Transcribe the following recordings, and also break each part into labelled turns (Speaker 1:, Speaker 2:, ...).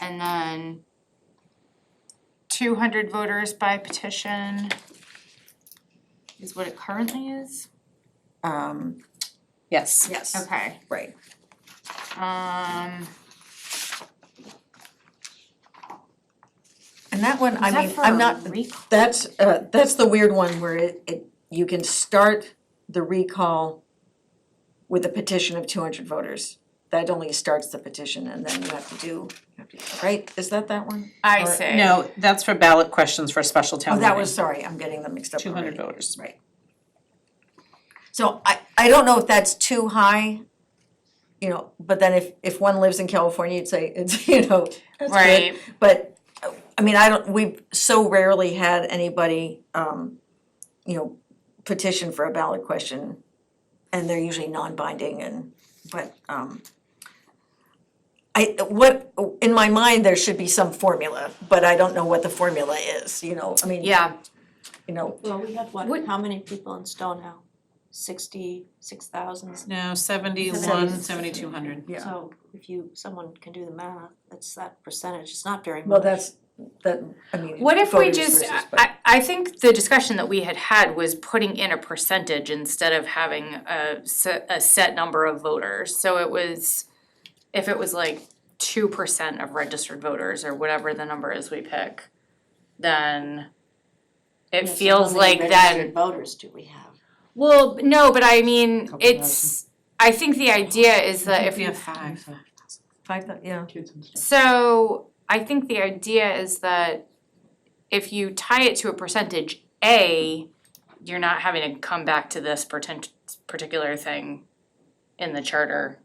Speaker 1: and then two hundred voters by petition is what it currently is?
Speaker 2: Um, yes,
Speaker 3: Yes,
Speaker 1: Okay,
Speaker 2: right.
Speaker 1: um,
Speaker 2: And that one,
Speaker 1: is
Speaker 2: I
Speaker 1: that
Speaker 2: mean,
Speaker 1: for
Speaker 2: I'm not,
Speaker 1: a recall?
Speaker 2: that's, uh, that's the weird one where it, it, you can start the recall with a petition of two hundred voters. That only starts the petition and then you have to do, you have to, right? Is that that one?
Speaker 1: I
Speaker 2: or-
Speaker 1: see.
Speaker 3: no, that's for ballot questions for special town
Speaker 2: Oh,
Speaker 3: meeting.
Speaker 2: that was, sorry, I'm getting them mixed up
Speaker 3: Two hundred
Speaker 2: already.
Speaker 3: voters.
Speaker 2: Right. So I, I don't know if that's too high, you know, but then if, if one lives in California, you'd say it's, you know, that's good.
Speaker 1: Right.
Speaker 2: But, uh, I mean, I don't, we've so rarely had anybody, um, you know, petition for a ballot question. And they're usually non-binding and, but, um, I, what, in my mind, there should be some formula, but I don't know what the formula is, you know, I mean,
Speaker 1: Yeah,
Speaker 2: you know,
Speaker 4: Well, we had what,
Speaker 1: What-
Speaker 4: how many people in Stonehow? Sixty-six thousand,
Speaker 3: No, seventy-one, seventy-two hundred.
Speaker 2: Yeah.
Speaker 4: so if you, someone can do the math, that's that percentage, it's not very much.
Speaker 2: Well, that's, that, I mean.
Speaker 1: What if we
Speaker 2: voters
Speaker 1: just,
Speaker 2: versus,
Speaker 1: I-
Speaker 2: but-
Speaker 1: I, I think the discussion that we had had was putting in a percentage instead of having a set, a set number of voters. So it was, if it was like two percent of registered voters or whatever the number is we pick, then it
Speaker 4: Yeah, so how
Speaker 1: feels
Speaker 4: many
Speaker 1: like
Speaker 4: registered
Speaker 1: then,
Speaker 4: voters do we have?
Speaker 1: well, no, but I mean, it's, I think the idea is that if
Speaker 3: We
Speaker 1: you
Speaker 3: have five.
Speaker 2: Five, thou- yeah,
Speaker 3: Kids and stuff.
Speaker 1: So I think the idea is that if you tie it to a percentage A, you're not having to come back to this pretend, particular thing in the charter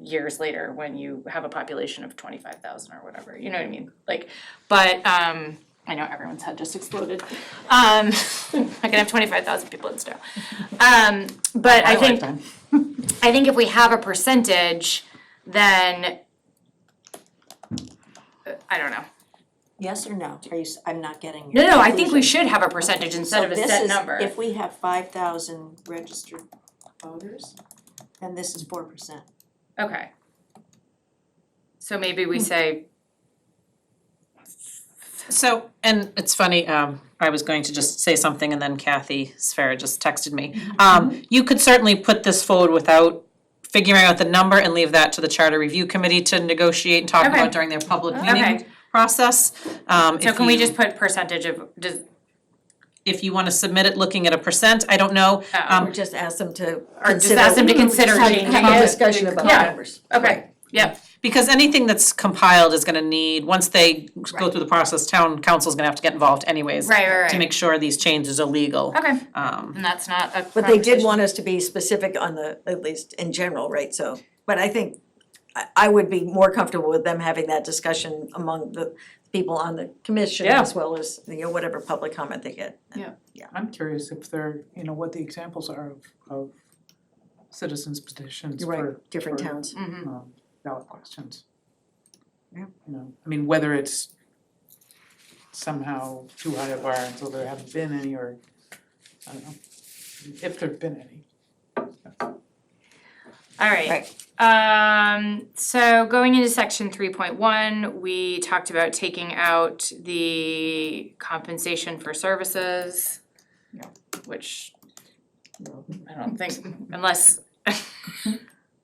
Speaker 1: years later when you have a population of twenty-five thousand or whatever, you know what I mean? Like, but, um, I know everyone's head just exploded. Um, I can have twenty-five thousand people in Stowe. Um, but I
Speaker 3: My
Speaker 1: think,
Speaker 3: lifetime.
Speaker 1: I think if we have a percentage, then uh, I don't know.
Speaker 4: Yes or no? Are you, s- I'm not getting your
Speaker 1: No, no, I think we
Speaker 4: conclusion.
Speaker 1: should have a percentage instead of a set number.
Speaker 4: So this is, if we have five thousand registered voters, then this is four percent.
Speaker 1: Okay. So maybe we say,
Speaker 3: So, and it's funny, um, I was going to just say something and then Kathy Sfera just texted me. Um, you could certainly put this forward without figuring out the number and leave that to the charter review committee to negotiate and talk
Speaker 1: Okay.
Speaker 3: about during their public
Speaker 1: Okay.
Speaker 3: meeting process. Um,
Speaker 1: so
Speaker 3: if
Speaker 1: can we
Speaker 3: you-
Speaker 1: just put percentage of, does,
Speaker 3: If you wanna submit it looking at a percent, I don't know. Um,
Speaker 1: oh,
Speaker 2: or just ask them to
Speaker 1: Or just
Speaker 2: consider-
Speaker 1: ask them to consider
Speaker 2: have-
Speaker 1: changing
Speaker 2: Have
Speaker 1: it.
Speaker 2: a discussion about
Speaker 1: Yeah.
Speaker 2: numbers.
Speaker 1: okay, yep,
Speaker 3: Because anything that's compiled is gonna need, once they go through the process, town council's gonna have to get involved anyways.
Speaker 1: Right, right,
Speaker 3: To
Speaker 1: right.
Speaker 3: make sure these changes are legal.
Speaker 1: okay,
Speaker 3: Um,
Speaker 1: and that's not a
Speaker 2: But they did
Speaker 1: conversation.
Speaker 2: want us to be specific on the, at least in general, right, so, but I think, I, I would be more comfortable with them having that discussion among the people on the commission
Speaker 3: Yeah.
Speaker 2: as well as, you know, whatever public comment they get.
Speaker 5: I'm curious if they're, you know, what the examples are of, of citizens petitions
Speaker 2: You're
Speaker 5: for,
Speaker 2: Right, different
Speaker 5: for-
Speaker 2: towns.
Speaker 1: Mhm.
Speaker 5: um, ballot questions.
Speaker 2: Yeah.
Speaker 5: You know, I mean, whether it's somehow too high a bar until there haven't been any, or, I don't know, if there've been any.
Speaker 1: Alright, um, so going into section three point one, we talked about taking out the compensation for services.
Speaker 2: Yeah.
Speaker 1: Which
Speaker 2: No.
Speaker 1: I don't think, unless.
Speaker 5: I'm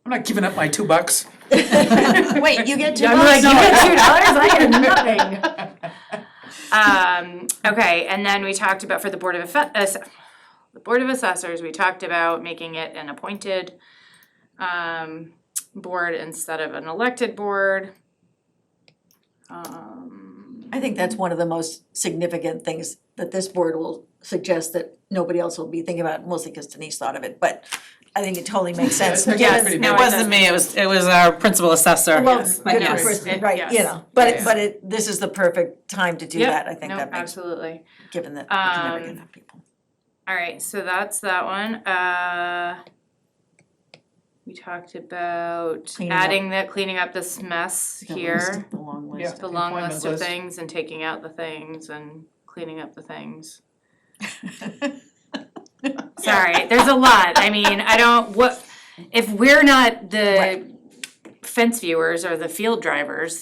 Speaker 5: not giving up my two bucks.
Speaker 2: Wait, you get two
Speaker 1: I'm like,
Speaker 2: votes?
Speaker 1: you get two dollars, I get nothing. Um, okay, and then we talked about for the Board of Affe- Ass- the Board of Assessors, we talked about making it an appointed um board instead of an elected board. Um,
Speaker 2: I think that's one of the most significant things that this board will suggest that nobody else will be thinking about, mostly because Denise thought of it, but I think it totally makes sense.
Speaker 5: Yeah,
Speaker 3: Yes,
Speaker 5: pretty
Speaker 3: it
Speaker 5: bad.
Speaker 3: wasn't me, it was, it was our principal assessor.
Speaker 2: Well,
Speaker 3: But
Speaker 2: good
Speaker 3: yes.
Speaker 2: person,
Speaker 1: It-
Speaker 2: right, you
Speaker 1: yes.
Speaker 2: know, but it,
Speaker 3: Yes.
Speaker 2: but it, this is the perfect time to do
Speaker 1: Yep.
Speaker 2: that, I think
Speaker 1: no,
Speaker 2: that makes,
Speaker 1: absolutely.
Speaker 2: given that we can never get
Speaker 1: Um,
Speaker 2: enough people.
Speaker 1: Alright, so that's that one, uh. We talked about
Speaker 2: Cleaning up.
Speaker 1: adding the, cleaning up this mess
Speaker 2: The
Speaker 1: here.
Speaker 2: list, The long list.
Speaker 5: Yeah.
Speaker 1: the long
Speaker 5: Employment
Speaker 1: list of
Speaker 5: list.
Speaker 1: things and taking out the things and cleaning up the things. Sorry, there's a lot. I mean, I don't, what, if we're not the fence viewers or the field drivers,